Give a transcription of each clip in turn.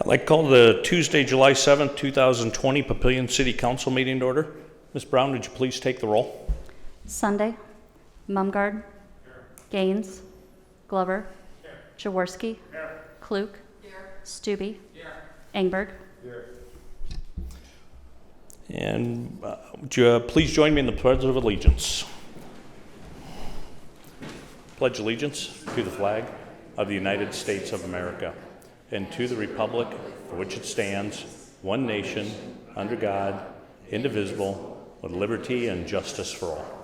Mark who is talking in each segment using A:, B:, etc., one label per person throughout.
A: I'd like to call the Tuesday, July 7th, 2020 Papillion City Council meeting to order. Ms. Brown, would you please take the roll?
B: Sunday, Mumgarde, Gaines, Glover, Jaworski, Klug, Stube, Engberg.
A: And uh, would you uh, please join me in the Pledge of Allegiance? Pledge allegiance to the flag of the United States of America and to the republic for which it stands, one nation, under God, indivisible, with liberty and justice for all.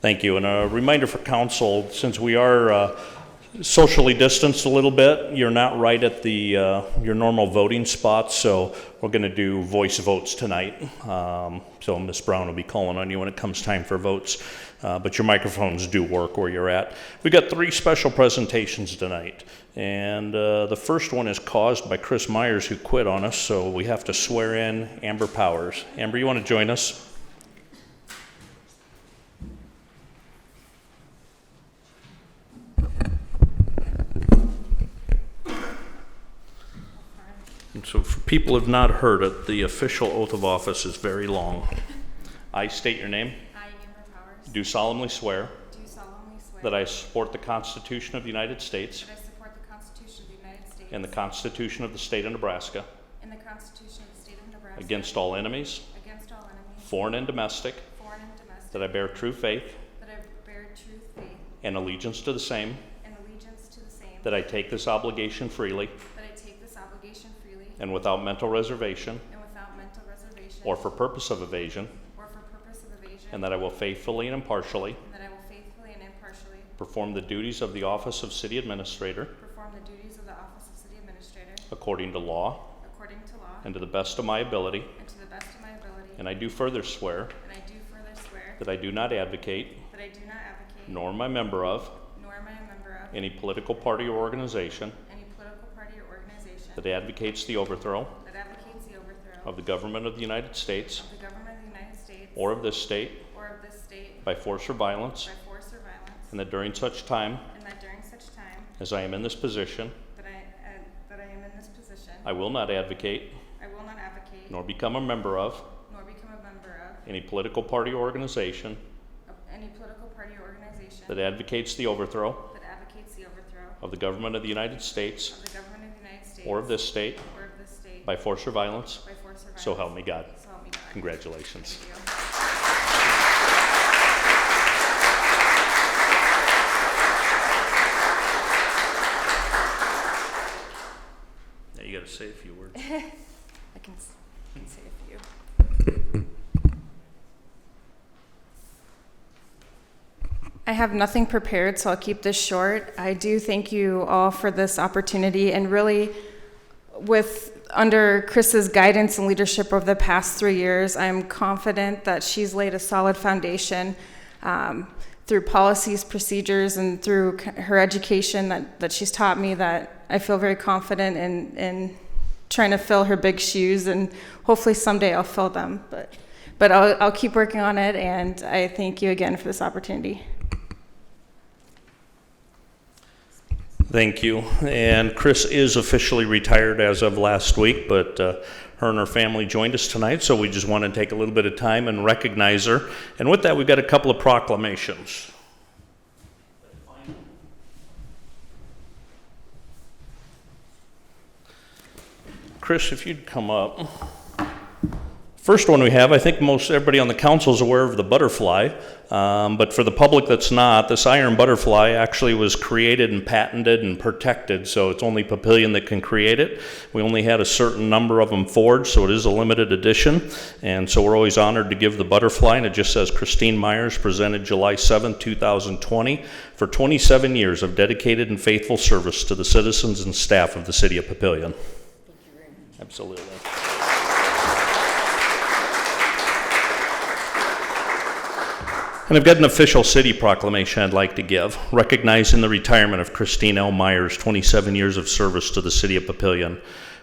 A: Thank you. And a reminder for council, since we are uh, socially distanced a little bit, you're not right at the, uh, your normal voting spots, so we're going to do voice votes tonight. Um, So Ms. Brown will be calling on you when it comes time for votes, Uh, but your microphones do work where you're at. We've got three special presentations tonight, and uh, the first one is caused by Chris Myers, who quit on us, so we have to swear in Amber Powers. Amber, you want to join us? And so, for people who have not heard it, the official oath of office is very long. I state your name,
C: I, Amber Powers,
A: do solemnly swear
C: do solemnly swear
A: that I support the Constitution of the United States
C: that I support the Constitution of the United States
A: and the Constitution of the State of Nebraska
C: and the Constitution of the State of Nebraska
A: against all enemies,
C: against all enemies,
A: foreign and domestic,
C: foreign and domestic,
A: that I bear true faith
C: that I bear true faith
A: and allegiance to the same,
C: and allegiance to the same,
A: that I take this obligation freely
C: that I take this obligation freely
A: and without mental reservation
C: and without mental reservation
A: or for purpose of evasion,
C: or for purpose of evasion,
A: and that I will faithfully and impartially
C: and that I will faithfully and impartially
A: perform the duties of the office of City Administrator
C: perform the duties of the office of City Administrator
A: according to law
C: according to law
A: and to the best of my ability.
C: and to the best of my ability,
A: And I do further swear
C: and I do further swear
A: that I do not advocate,
C: that I do not advocate
A: nor am I a member of,
C: nor am I a member of
A: any political party or organization
C: any political party or organization
A: that advocates the overthrow
C: that advocates the overthrow
A: of the government of the United States
C: of the government of the United States
A: or of this state
C: or of this state
A: by force or violence,
C: by force or violence,
A: and that during such time
C: and that during such time
A: as I am in this position,
C: that I, uh, that I am in this position,
A: I will not advocate
C: I will not advocate
A: nor become a member of
C: nor become a member of-
A: any political party or organization
C: of any political party or organization
A: that advocates the overthrow
C: that advocates the overthrow
A: of the government of the United States
C: of the government of the United States
A: or of this state
C: or of this state
A: by force or violence.
C: by force or violence.
A: So help me God.
C: So help me God.
A: Congratulations.
C: Thank you.
A: Now you got to say a few words.
C: I can, s- I can say a few. I have nothing prepared, so I'll keep this short. I do thank you all for this opportunity and really with under Chris's guidance and leadership over the past three years, I'm confident that she's laid a solid foundation um, through policies, procedures, and through c- her education that, that she's taught me that I feel very confident in, in trying to fill her big shoes, and hopefully someday I'll fill them. But, but I'll, I'll keep working on it, and I thank you again for this opportunity.
A: Thank you. And Chris is officially retired as of last week, but uh, her and her family joined us tonight, so we just want to take a little bit of time and recognize her. And with that, we've got a couple of proclamations. Chris, if you'd come up. First one we have, I think most everybody on the council is aware of the butterfly, um, but for the public that's not, this iron butterfly actually was created and patented and protected, so it's only Papillion that can create it. We only had a certain number of them forged, so it is a limited edition, and so we're always honored to give the butterfly, and it just says Christine Myers, presented July 7, 2020, for 27 years of dedicated and faithful service to the citizens and staff of the city of Papillion. Absolutely. And I've got an official city proclamation I'd like to give, recognizing the retirement of Christine L. Myers, 27 years of service to the city of Papillion.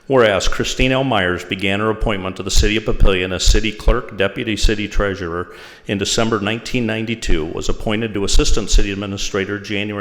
A: Whereas Christine L. Myers began her appointment to the city of Papillion as city clerk, deputy city treasurer in December 1992, was appointed to assistant city administrator January